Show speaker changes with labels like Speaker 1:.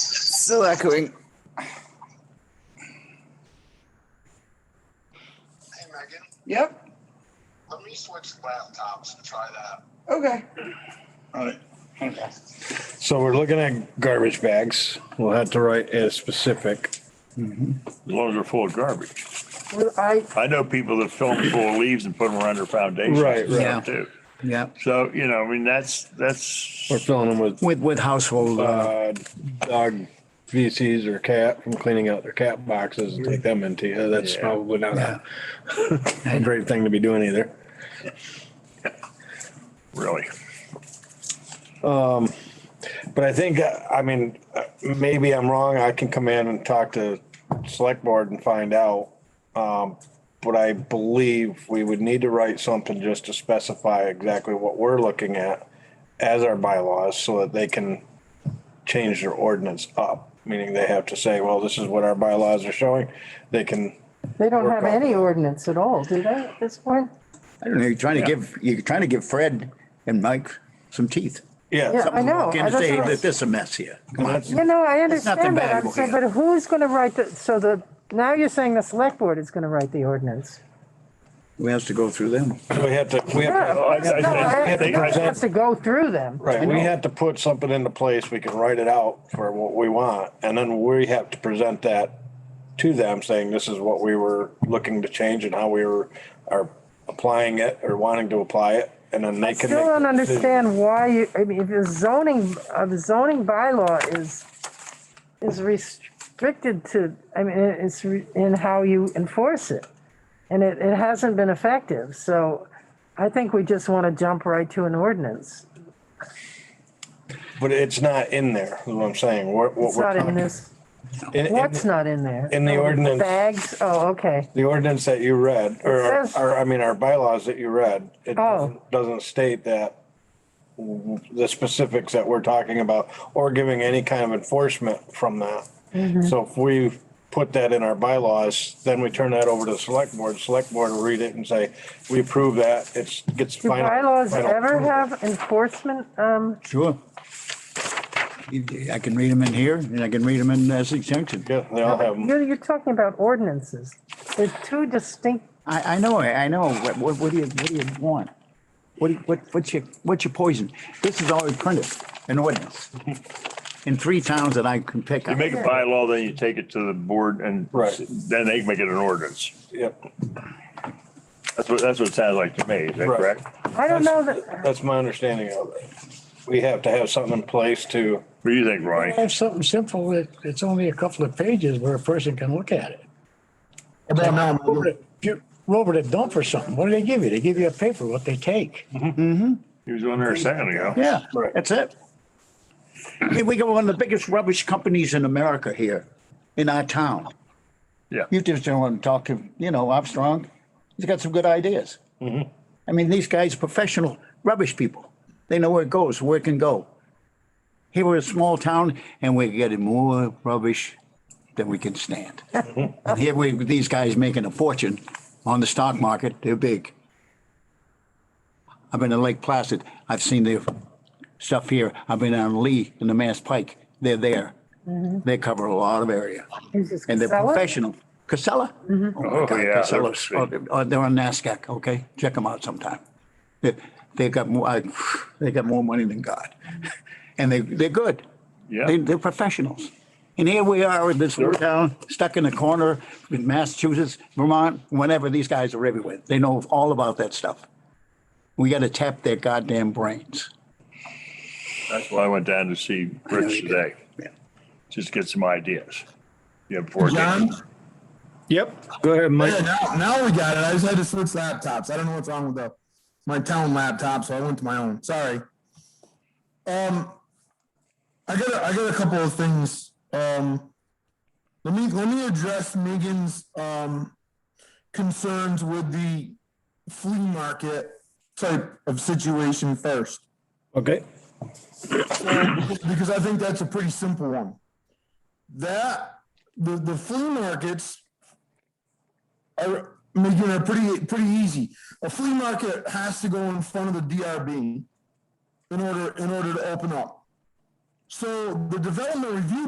Speaker 1: Still echoing.
Speaker 2: Hey, Megan,
Speaker 1: Yep.
Speaker 2: let me switch laptops and try that.
Speaker 1: Okay.
Speaker 2: All right. Okay.
Speaker 3: So we're looking at garbage bags. We'll have to write a specific.
Speaker 4: As long as they're full of garbage.
Speaker 1: Well, I
Speaker 4: I know people that fill them full of leaves and put them around their foundations.
Speaker 3: Right,
Speaker 4: and
Speaker 3: right.
Speaker 4: stuff Too.
Speaker 5: Yeah,
Speaker 4: So, you know, I mean, that's, that's,
Speaker 3: We're filling them with
Speaker 5: with, with household, uh,
Speaker 3: uh, dog feces or cat from cleaning out their cat boxes and take them into you. That's
Speaker 4: Yeah.
Speaker 3: probably not
Speaker 5: yeah.
Speaker 3: a a great thing to be doing either.
Speaker 4: really.
Speaker 3: But I think, uh, I mean, uh, maybe I'm wrong. I can come in and talk to select board and find out. Um, But I believe we would need to write something just to specify exactly what we're looking at as our bylaws so that they can change their ordinance up. Meaning they have to say, well, this is what our bylaws are showing. They can,
Speaker 6: They don't
Speaker 3: Work
Speaker 6: have
Speaker 3: on
Speaker 6: any
Speaker 3: it.
Speaker 6: ordinance at all, do they, at this point?
Speaker 5: I don't know, you're trying to give, you're trying to give Fred and Mike some teeth.
Speaker 3: yeah,
Speaker 6: Yeah. I know,
Speaker 5: Can
Speaker 6: I- that's
Speaker 5: say
Speaker 6: what I-
Speaker 5: that this is a mess here. Come on.
Speaker 6: You know, I
Speaker 5: There's nothing
Speaker 6: understand
Speaker 5: bad
Speaker 6: that, I'm
Speaker 5: about
Speaker 6: saying,
Speaker 5: it.
Speaker 6: but who's gonna write the, so the, now you're saying the select board is gonna write the ordinance?
Speaker 5: We have to go through them.
Speaker 3: we have to, we have
Speaker 6: No,
Speaker 3: to.
Speaker 4: I- I- I-
Speaker 6: I
Speaker 3: I think-
Speaker 6: don't have to go through them.
Speaker 3: Right, we have to put something into place, we can write it out for what we want, and then we have to present that to them, saying this is what we were looking to change and how we were, are applying it or wanting to apply it, and then they can.
Speaker 6: Still
Speaker 3: make the
Speaker 6: don't
Speaker 3: decision.
Speaker 6: understand why you, I mean, if the zoning, uh, the zoning bylaw is, is restricted to, I mean, it- it's re- in how you enforce it. And it, it hasn't been effective, so I think we just wanna jump right to an ordinance.
Speaker 3: But it's not in there, is what I'm saying, what, what
Speaker 6: It's not
Speaker 3: we're
Speaker 6: in
Speaker 3: talking.
Speaker 6: this,
Speaker 3: in- in
Speaker 6: what's not in there?
Speaker 3: in the
Speaker 6: Oh,
Speaker 3: ordinance.
Speaker 6: Bags, oh, okay,
Speaker 3: The ordinance that you read, or,
Speaker 6: It says-
Speaker 3: or, I mean, our bylaws that you read, it
Speaker 6: Oh.
Speaker 3: doesn't- doesn't state that the specifics that we're talking about, or giving any kind of enforcement from that.
Speaker 6: Mm-hmm.
Speaker 3: So if we put that in our bylaws, then we turn that over to the select board, select board will read it and say, we approve that, it's, gets
Speaker 6: do
Speaker 3: final.
Speaker 6: bylaws
Speaker 3: final
Speaker 6: ever
Speaker 3: approval."
Speaker 6: have enforcement, um,
Speaker 5: Sure. You- I can read them in here and I can read them in as extension.
Speaker 3: Yeah, they all have them.
Speaker 6: you're, you're talking about ordinances. They're two distinct
Speaker 5: I, I know, I know. What, what, what do you, what do you want? What, do you- what, what's your, what's your poison? This is already printed, an ordinance. In three towns that I can pick
Speaker 4: You
Speaker 5: up.
Speaker 4: make a bylaw, then you take it to the board and
Speaker 3: Right.
Speaker 4: then they make it an ordinance.
Speaker 3: Yep,
Speaker 4: That's what, that's what it sounds like to me. Is that
Speaker 3: Right.
Speaker 4: correct?
Speaker 6: I don't know that,
Speaker 3: that's my understanding of it. We have to have something in place to,
Speaker 4: What do you think, Ronnie?
Speaker 7: Have something simple, that it's only a couple of pages where a person can look at it.
Speaker 2: About now,
Speaker 7: Over to- if you roll over to dump or something, what do they give you? They give you a paper, what they take.
Speaker 4: He was on there a second ago.
Speaker 5: Yeah,
Speaker 3: Right.
Speaker 5: that's it. I mean, we got one of the biggest rubbish companies in America here, in our town.
Speaker 4: Yeah.
Speaker 5: You just don't want to talk to, you know, Armstrong, he's got some good ideas. I mean, these guys, professional rubbish people, they know where it goes, where it can go. Here we're a small town and we're getting more rubbish than we can stand. And here we, these guys making a fortune on the stock market, they're big. I've been to Lake Placid, I've seen their stuff here, I've been on Lee and the Mass Pike, they're there. They cover a lot of area.
Speaker 6: is this
Speaker 5: And they're
Speaker 6: Casella? Mm-hmm.
Speaker 5: professional. Casella? Oh, my
Speaker 4: Oh,
Speaker 5: God,
Speaker 4: yeah, they're
Speaker 5: Casella's- oh, They're oh, they're on NASDAQ, okay? Check them out sometime. They, they got more, I- they got more money than God. And they, they're good.
Speaker 4: Yeah.
Speaker 5: They, they're professionals. And here we are in this little town, stuck in the corner in Massachusetts, Vermont, whenever, these guys are everywhere. They know all about that stuff. We gotta tap their goddamn brains.
Speaker 4: That's why I went down to see Rich today.
Speaker 5: Yeah.
Speaker 4: Just get some ideas. You have four
Speaker 2: John?
Speaker 4: days.
Speaker 3: yep, go ahead, Mike.
Speaker 2: Yeah, now, now we got it. I just had to switch laptops. I don't know what's wrong with the my town laptop, so I went to my own. Sorry. Um, I got a, I got a couple of things. Um, let me let me address Megan's um concerns with the flea market type of situation first
Speaker 3: Okay,
Speaker 2: because I think that's a pretty simple one. That the the flea markets are making it pretty pretty easy. A flea market has to go in front of the DRB in order in order to open up. So the development review